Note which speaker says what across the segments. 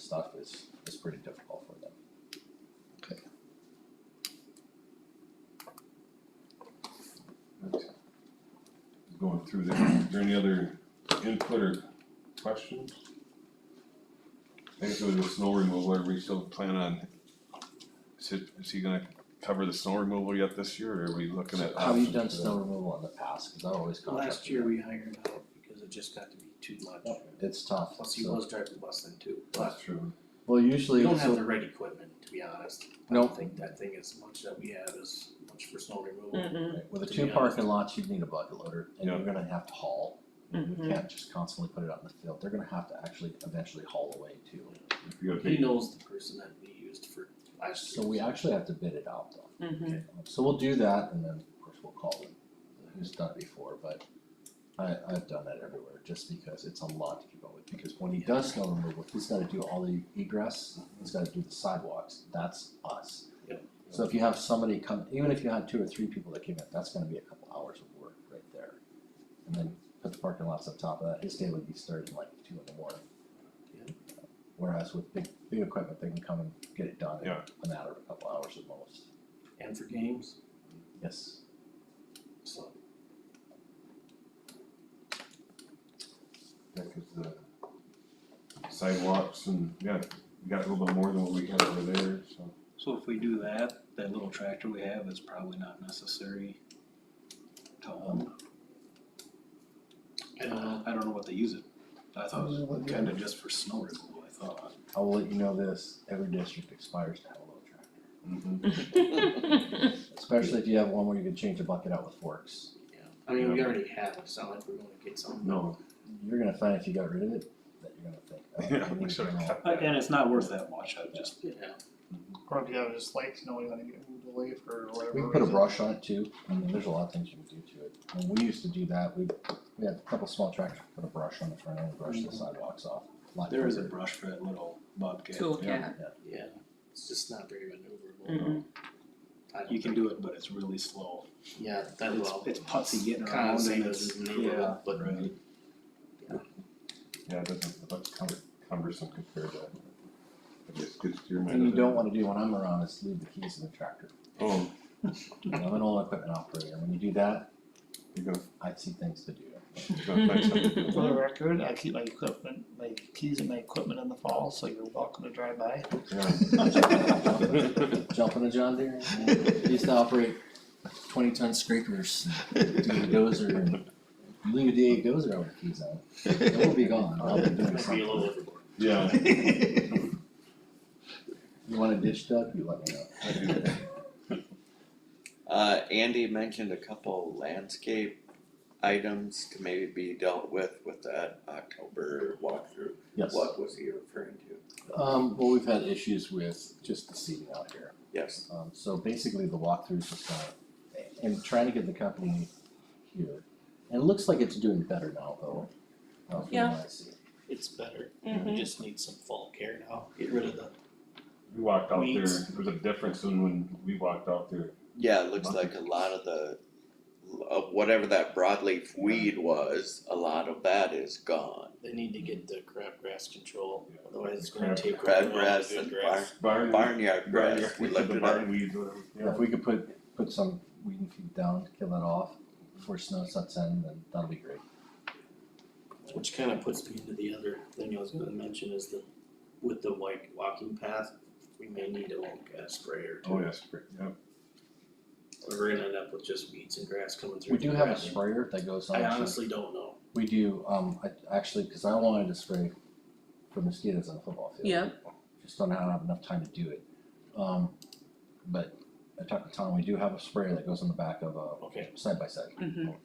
Speaker 1: stuff is, is pretty difficult for them.
Speaker 2: Going through there, is there any other input or questions? I guess with the snow removal, are we still plan on, is it, is he gonna cover the snow removal yet this year, or are we looking at?
Speaker 1: Have you
Speaker 2: options
Speaker 1: done
Speaker 2: for
Speaker 1: snow removal in the past, cause I always contract.
Speaker 3: Last year we hired out because it just got to be too much.
Speaker 1: It's tough,
Speaker 3: Plus he
Speaker 1: so,
Speaker 3: was driving the bus then too.
Speaker 2: that? That's true,
Speaker 1: well,
Speaker 3: We
Speaker 1: usually,
Speaker 3: don't have
Speaker 1: so,
Speaker 3: the right equipment, to be honest. I
Speaker 1: Nope.
Speaker 3: don't think that thing is much that we have is much for snow removal.
Speaker 4: Mm-mm,
Speaker 1: with the
Speaker 3: to
Speaker 1: two
Speaker 3: be
Speaker 1: parking lots, you'd need a bucket loader, and
Speaker 2: Yeah.
Speaker 1: you're gonna have to haul. You
Speaker 3: Mm-hmm.
Speaker 4: mhm.
Speaker 1: can't just constantly put it out in the field, they're gonna have to actually eventually haul away too.
Speaker 2: if you got
Speaker 3: He
Speaker 2: big,
Speaker 3: knows the person that we used for last year.
Speaker 1: So we actually have to bid it out though.
Speaker 4: Mhm.
Speaker 1: So we'll do that and then of course we'll call them, who's done it before, but I I've done that everywhere just because it's a lot to keep up with, because when he does snow removal, he's gotta do all the egress, he's gotta do the sidewalks, that's us.
Speaker 3: Yep.
Speaker 1: So if you have somebody come, even if you had two or three people that came in, that's gonna be a couple hours of work right there. And then put the parking lots up top of that, his day would be starting like two in the morning.
Speaker 3: Yeah.
Speaker 1: Whereas with big big equipment, they can come and get it done in
Speaker 2: Yeah.
Speaker 1: a matter of a couple hours at most,
Speaker 3: And for games,
Speaker 1: yes.
Speaker 3: so
Speaker 2: yeah, 'cause the sidewalks and, yeah, we got a little bit more than what we had over there, so.
Speaker 5: So if we do that, that little tractor we have is probably not necessary to own.
Speaker 3: I don't know.
Speaker 5: I don't know what they use it. I thought it was kinda just for snow removal, I thought.
Speaker 1: I will let you know this, every district expires to have a load tractor, Mm-hmm.
Speaker 2: mhm.
Speaker 1: especially if you have one where you can change a bucket out with forks.
Speaker 3: yeah. I mean, we already have, it. it's not like we're gonna get something.
Speaker 2: No,
Speaker 1: You're gonna find if you got rid of it, that you're gonna think, oh,
Speaker 2: yeah,
Speaker 1: I
Speaker 2: we
Speaker 1: need to
Speaker 2: should have
Speaker 1: know.
Speaker 2: kept
Speaker 5: Uh,
Speaker 2: that.
Speaker 5: And it's not worth that much, I just,
Speaker 3: Yeah,
Speaker 6: Or if you have just lights, knowing that it get moved away for whatever
Speaker 1: We can put a
Speaker 6: reason.
Speaker 1: brush on it too, I mean, there's a lot of things you can do to it, when we used to do that, we, we had a couple small tractors, put a brush on the front end, brush the sidewalks off. Lot
Speaker 5: there is a
Speaker 1: quicker.
Speaker 5: brush for that little bobcat.
Speaker 4: Toolcat,
Speaker 3: yeah, it's just not very maneuverable.
Speaker 4: Mhm.
Speaker 3: I don't
Speaker 5: You
Speaker 3: think-
Speaker 5: can do it, but it's really slow.
Speaker 3: Yeah, that
Speaker 5: It's,
Speaker 3: well,
Speaker 5: it's putsy getting
Speaker 3: kind
Speaker 5: around
Speaker 3: of
Speaker 5: and
Speaker 3: same
Speaker 5: it's,
Speaker 3: as
Speaker 5: yeah,
Speaker 3: maneuverable, but
Speaker 5: right.
Speaker 2: Yeah, it doesn't, that's cum- cumbersome compared to, I guess, good steer might.
Speaker 1: Thing you don't wanna do when I'm around is leave the keys in the tractor,
Speaker 2: Oh,
Speaker 1: You know, I'm an old equipment operator, when you do that,
Speaker 2: you go,
Speaker 1: I see things to do.
Speaker 2: you go find something to
Speaker 6: For
Speaker 2: do.
Speaker 6: the record, I keep my equipment, my keys and my equipment in the fall, so you're welcome to drive by.
Speaker 2: Yeah.
Speaker 1: Jumping a John Deere. They used to operate twenty ton scrapers, and do a dozer and you leave a DA dozer out with the keys on. it. It will be gone, I'll be doing
Speaker 3: Might be a little
Speaker 1: something.
Speaker 3: overboard.
Speaker 2: Yeah.
Speaker 1: You want a ditch dug, you let me know.
Speaker 2: I do.
Speaker 7: Uh, Andy mentioned a couple landscape items to maybe be dealt with with that October walkthrough.
Speaker 1: Yes,
Speaker 7: What was he referring to?
Speaker 1: um, well, we've had issues with just the seating out here.
Speaker 7: Yes,
Speaker 1: Um, so basically the walkthrough's just gonna, and trying to get the company here. And it looks like it's doing better now though. uh, from
Speaker 4: Yeah.
Speaker 1: what I see.
Speaker 3: It's better, we
Speaker 4: Mhm.
Speaker 3: just need some fall care now, get rid of the
Speaker 2: We walked out there,
Speaker 3: Weeds.
Speaker 2: there was a difference in when we walked out there,
Speaker 7: yeah, it looks like a lot of the, of whatever that broadleaf weed was, a lot of that is gone.
Speaker 3: They need to get the crab grass control,
Speaker 2: Yeah.
Speaker 3: otherwise it's gonna
Speaker 2: Crab-
Speaker 3: take.
Speaker 7: crab
Speaker 3: over all
Speaker 7: grass
Speaker 3: the good
Speaker 7: and
Speaker 3: grass.
Speaker 2: barn, barn,
Speaker 7: Barnyard grass, we
Speaker 2: yeah,
Speaker 7: looked
Speaker 2: the
Speaker 7: it up.
Speaker 2: barn weeds, whatever,
Speaker 1: If
Speaker 2: yeah.
Speaker 1: we could put, put some weed and feed down, kill that off before snow sets in, then that'll be great.
Speaker 3: Which kinda puts me into the other thing I was gonna mention is the, with the white walking path, we may need a long gas sprayer too.
Speaker 2: Oh, yes, yeah,
Speaker 3: Or We're gonna end up with just weeds and grass coming through.
Speaker 1: We
Speaker 3: the
Speaker 1: do have a
Speaker 3: grass.
Speaker 1: sprayer that goes on.
Speaker 3: I
Speaker 1: so-
Speaker 3: honestly don't know,
Speaker 1: We do, um, I actually, cause I wanted to spray for mosquitoes on the football field.
Speaker 4: yeah,
Speaker 1: Just don't have enough time to do it. Um, but I talked to Tom, we do have a sprayer that goes on the back of a
Speaker 3: okay,
Speaker 1: side by side.
Speaker 4: Mhm.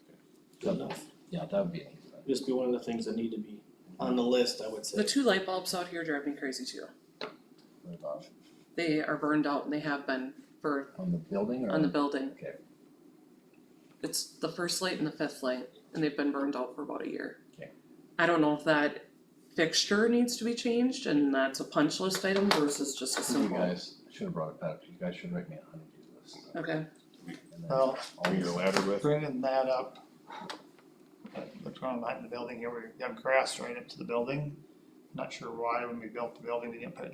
Speaker 3: good enough,
Speaker 1: Yeah, that would be an easy one.
Speaker 3: just be one of the things that need to be on the list, I would say.
Speaker 4: the two light bulbs out here drive me crazy too.
Speaker 1: What about
Speaker 4: They are burned out and they have been for,
Speaker 1: On the building or?
Speaker 4: on the building.
Speaker 1: Okay.
Speaker 4: It's the first light and the fifth light, and they've been burned out for about a year.
Speaker 1: Okay.
Speaker 4: I don't know if that fixture needs to be changed, and that's a punch list item versus just a
Speaker 1: You
Speaker 4: simple.
Speaker 1: guys should have brought it back, you guys should write me a honeydew list.
Speaker 4: Okay,
Speaker 1: And then
Speaker 6: Well,
Speaker 1: all
Speaker 2: bring your
Speaker 1: these-
Speaker 2: ladder with,
Speaker 6: bringing that uh, up. What's going on behind the building here, we have grass right up to the building. Not sure why when we built the building, they didn't put